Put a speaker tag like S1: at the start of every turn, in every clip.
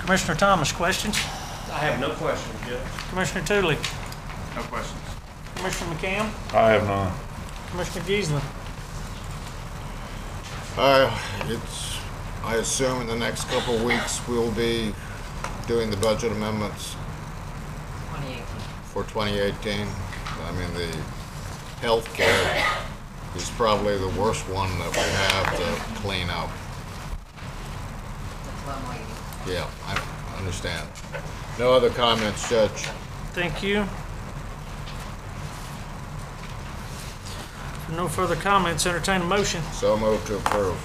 S1: Commissioner Thomas, questions?
S2: I have no questions, Judge.
S1: Commissioner Tootley?
S2: No questions.
S1: Commissioner McCam?
S3: I have none.
S1: Commissioner Geisler?
S4: Uh, it's, I assume in the next couple of weeks, we'll be doing the budget amendments
S5: 2018.
S4: for 2018. I mean, the healthcare is probably the worst one that we have to clean up.
S5: That's what I'm waiting.
S4: Yeah, I understand. No other comments, Judge?
S1: Thank you. No further comments, entertain a motion.
S4: So moved to approve.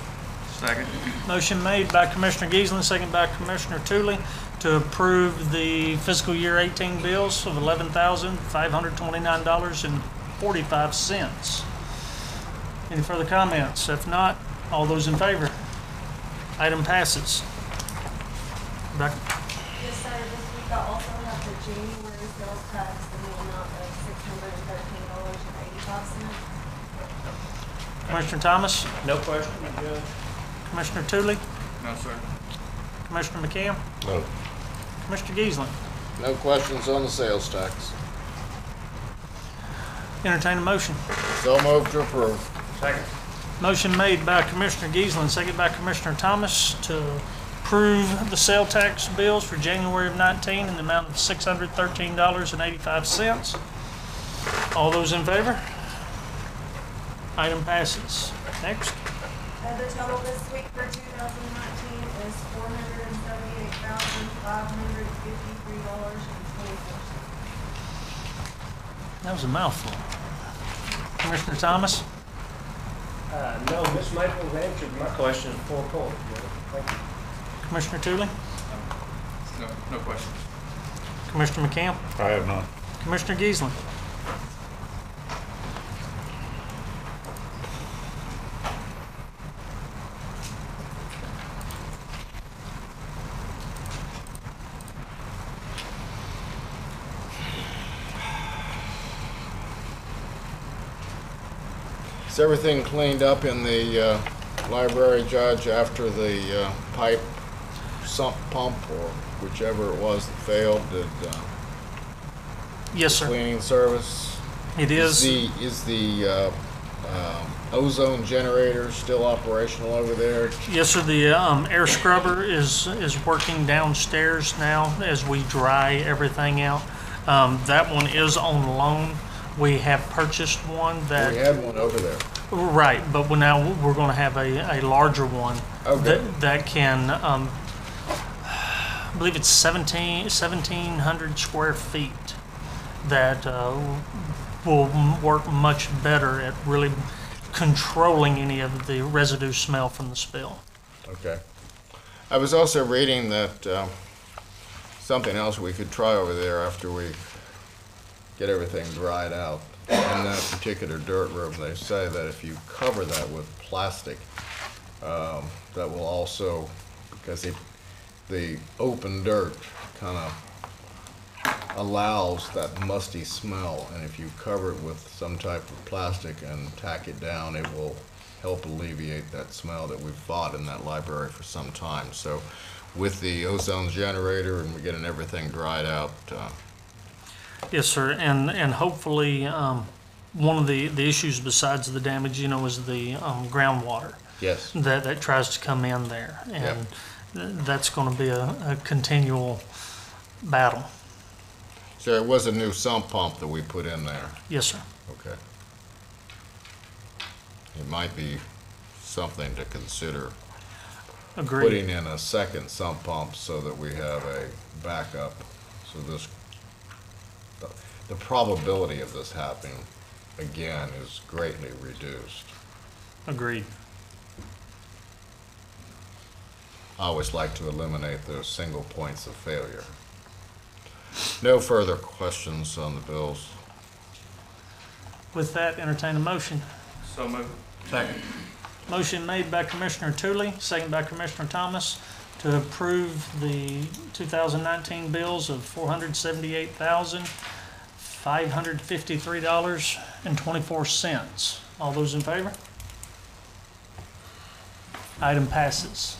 S2: Second.
S1: Motion made by Commissioner Geisling, second by Commissioner Tootley, to approve the fiscal year 18 bills of $11,529.45. Any further comments? If not, all those in favor? Item passes. Back-
S6: Yes, sir, this week I also have the January sales tax in the amount of six hundred and thirteen dollars and eighty-five cents.
S1: Commissioner Thomas,
S2: No questions, Judge?
S1: Commissioner Tootley,
S2: No, sir.
S1: Commissioner McCam,
S4: No.
S1: Commissioner Geisling.
S4: No questions on the sales tax.
S1: Entertain a motion.
S4: So moved to approve.
S2: Second.
S1: Motion made by Commissioner Geisling, second by Commissioner Thomas to approve the sale tax bills for January of 19 in the amount of $613.85. All those in favor? Item passes. Next,
S6: Uh, the total this week for two thousand nineteen is four hundred and seventy-eight thousand, five hundred and fifty-three dollars and twenty-four cents.
S1: that was a mouthful. Commissioner Thomas,
S2: Uh, no, Ms. Maples answered my question before court, Judge. Thank you.
S1: Commissioner Tootley,
S2: No, no questions.
S1: Commissioner McCamp,
S3: I have none.
S1: Commissioner Geisling.
S4: Is everything cleaned up in the uh, library, Judge, after the uh, pipe sump pump or whichever it was that failed? Did uh,
S1: Yes, sir.
S4: cleaning service?
S1: It is.
S4: the Is the uh, um, ozone generator still operational over there?
S1: Yes, sir, the um, air scrubber is, is working downstairs now as we dry everything out. Um, That one is on loan. We have purchased one
S4: We
S1: that,
S4: had one over there.
S1: right, but we now, we're going to have a, a larger one.
S4: Okay.
S1: that- That can, um, I believe it's 17, 1,700 square feet that uh, will m- work much better at really controlling any of the residue smell from the spill.
S4: Okay. I was also reading that um, something else we could try over there after we get everything dried out. In that particular dirt room, they say that if you cover that with plastic, um, that will also, because it, the open dirt kind of allows that musty smell, and if you cover it with some type of plastic and tack it down, it will help alleviate that smell that we've fought in that library for some time. So with the ozone generator and we're getting everything dried out, uh,
S1: Yes, sir, and, and hopefully, um, one of the, the issues besides the damage, you know, is the, um, groundwater
S4: yes,
S1: that, that tries to come in there. And th- that's gonna be a, a continual battle.
S4: so it was a new sump pump that we put in there,
S1: Yes, sir.
S4: okay? It might be something to consider,
S1: Agreed.
S4: putting in a second sump pump so that we have a backup, so this, the- the probability of this happening again is greatly reduced.
S1: Agreed.
S4: I always like to eliminate those single points of failure. No further questions on the bills.
S1: With that, entertain a motion.
S2: So moved.
S4: Second.
S1: Motion made by Commissioner Tootley, second by Commissioner Thomas, to approve the 2019 bills of $478,553.24. All those in favor? Item passes.